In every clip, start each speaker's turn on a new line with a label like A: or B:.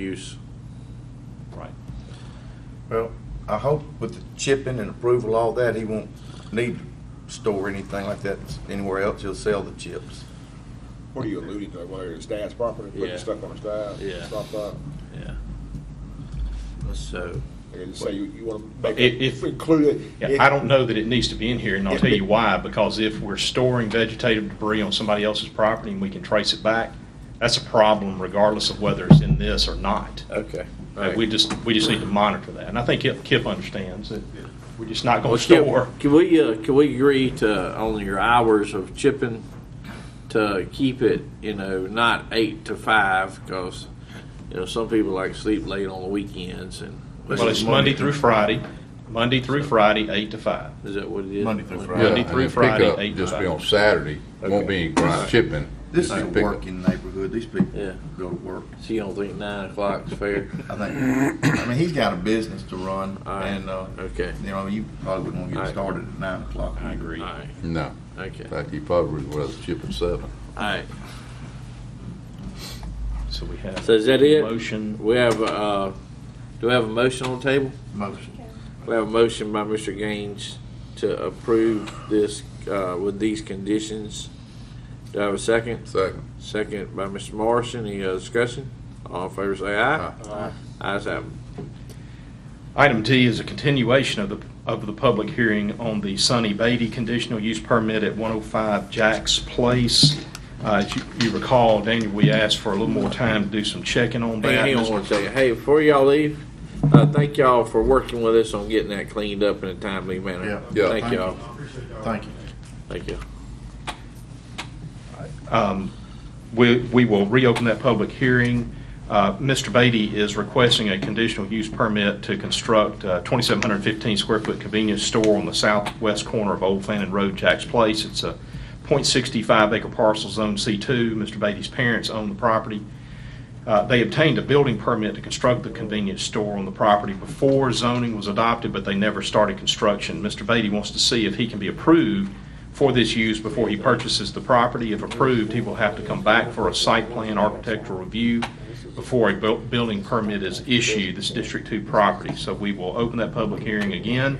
A: use.
B: Right.
C: Well, I hope with the chipping and approval, all that, he won't need to store anything like that anywhere else. He'll sell the chips.
D: What are you alluding to? Whether it's dad's property,
A: Yeah.
D: putting stuff on his dad,
A: Yeah.
D: stop by,
A: Yeah. So,
D: and say you, you wanna
B: But
D: make
B: it-
D: it
B: if-
D: included.
B: Yeah, I don't know that it needs to be in here, and I'll tell you why, because if we're storing vegetative debris on somebody else's property and we can trace it back, that's a problem regardless of whether it's in this or not.
A: okay.
B: Uh, We just, we just need to monitor that, and I think Kip Kip understands that we're just not gonna
A: Well, Skip,
B: store.
A: Can we, uh, can we agree to only your hours of chipping to keep it, you know, not eight to five? Because, you know, some people like sleep late on the weekends and.
B: Well, it's Monday through Friday, Monday through Friday, eight to five.
A: Is that what it is?
C: Monday through Friday.
E: Yeah,
B: Monday
E: and
B: through
E: the
B: Friday,
E: pickup
B: eight to
E: Just be
B: five.
E: on Saturday, won't be any ground shipping.
C: This is
E: Just
C: a
E: pickup.
C: working neighborhood. These people
A: Yeah.
C: go to work.
A: So you don't think nine o'clock's fair?
C: I think, I mean, he's got a business to run
A: All right.
C: and, uh,
A: Okay.
C: you know, you probably wouldn't want to
A: All
C: get
A: right.
C: started at nine o'clock.
A: All right,
E: No,
A: okay,
E: in
A: all
E: fact, you probably was shipping seven.
A: right.
B: So we have.
A: So is that it?
B: Motion,
A: We have, uh, do we have a motion on the table?
C: Motion.
A: We have a motion by Mr. Gaines to approve this, uh, with these conditions. Do I have a second?
E: Second.
A: Second by Mr. Morrison. Any other discussion? All in favor say aye. Aye. Ayes have it.
B: item D is a continuation of the, of the public hearing on the Sonny Beatty conditional use permit at 105 Jack's Place. Uh, as you- you recall, Daniel, we asked for a little more time to do some checking on that.
A: Hang on one second. Hey, before y'all leave, uh, thank y'all for working with us on getting that cleaned up in a timely manner.
E: Yeah. Yeah.
A: Thank y'all.
C: Thank you.
A: Thank you.
B: Um, We we will reopen that public hearing. Uh, Mr. Beatty is requesting a conditional use permit to construct a 2,715 square foot convenience store on the southwest corner of Old Fannin Road, Jack's Place. It's a .65 acre parcel, Zone C2. Mr. Beatty's parents own the property. Uh, They obtained a building permit to construct the convenience store on the property before zoning was adopted, but they never started construction. Mr. Beatty wants to see if he can be approved for this use before he purchases the property. If approved, he will have to come back for a site plan architectural review before a bu- building permit is issued, this District 2 property. So we will open that public hearing again.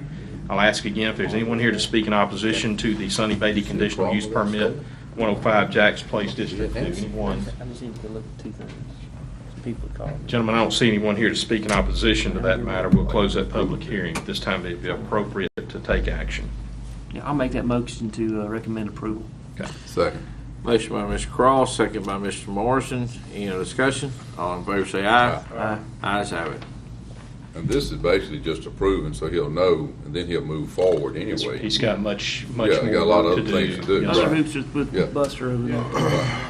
B: I'll ask again if there's anyone here to speak in opposition to the Sonny Beatty conditional use permit, 105 Jack's Place, District 2. Anyone?
F: I just need to look at two things. People call me.
B: Gentlemen, I don't see anyone here to speak in opposition to that matter. We'll close that public hearing. This time it'd be appropriate to take action.
F: Yeah, I'll make that motion to uh, recommend approval.
E: Second.
A: Motion by Mr. Cross, second by Mr. Morrison. Any other discussion? All in favor say aye.
F: Aye.
A: Ayes have it.
E: And this is basically just approving, so he'll know, and then he'll move forward anyway.
B: He's got much, much
E: Yeah,
B: more
E: he got a lot of
B: work
E: other things to do.
B: Yes,
F: Those
B: sir.
F: are hoops with-
E: Yeah.
F: with Buster over there.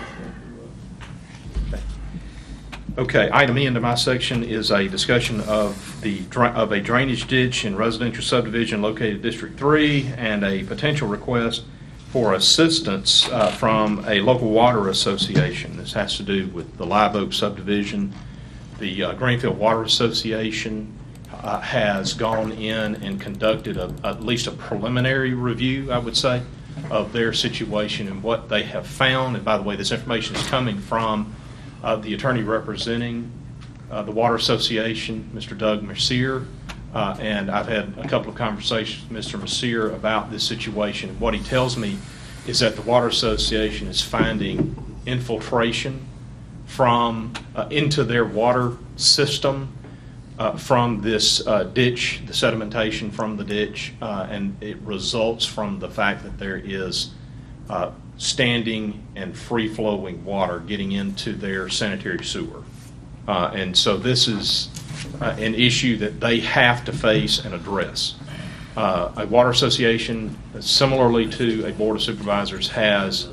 B: Okay, item E into my section is a discussion of the, dra- of a drainage ditch in residential subdivision located in District 3 and a potential request for assistance uh, from a local water association. This has to do with the Live Oak subdivision. The uh, Greenfield Water Association uh, has gone in and conducted a- at least a preliminary review, I would say, of their situation and what they have found. And by the way, this information is coming from uh, the attorney representing uh, the Water Association, Mr. Doug Mercier. Uh, And I've had a couple of conversations with Mr. Mercier about this situation. What he tells me is that the Water Association is finding infiltration from, uh, into their water system uh, from this uh, ditch, the sedimentation from the ditch, uh, and it results from the fact that there is uh, standing and free-flowing water getting into their sanitary sewer. Uh, And so this is uh, an issue that they have to face and address. Uh, A water association, similarly to a board of supervisors, has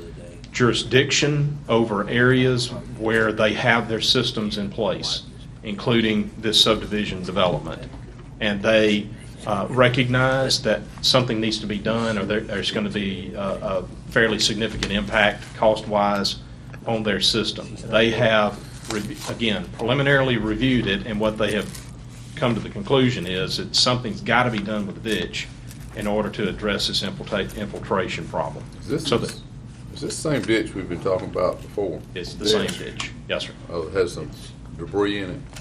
B: jurisdiction over areas where they have their systems in place, including this subdivision development. And they uh, recognize that something needs to be done, or there- there's going to be uh, a fairly significant impact cost-wise on their system. They have, re- again, preliminarily reviewed it, and what they have come to the conclusion is that something's got to be done with the ditch in order to address this infiltra- infiltration problem.
E: Is this,
B: So that-
E: is this the same ditch we've been talking about before?
B: It's the same ditch. Yes, sir.
E: Oh, it has some debris in it?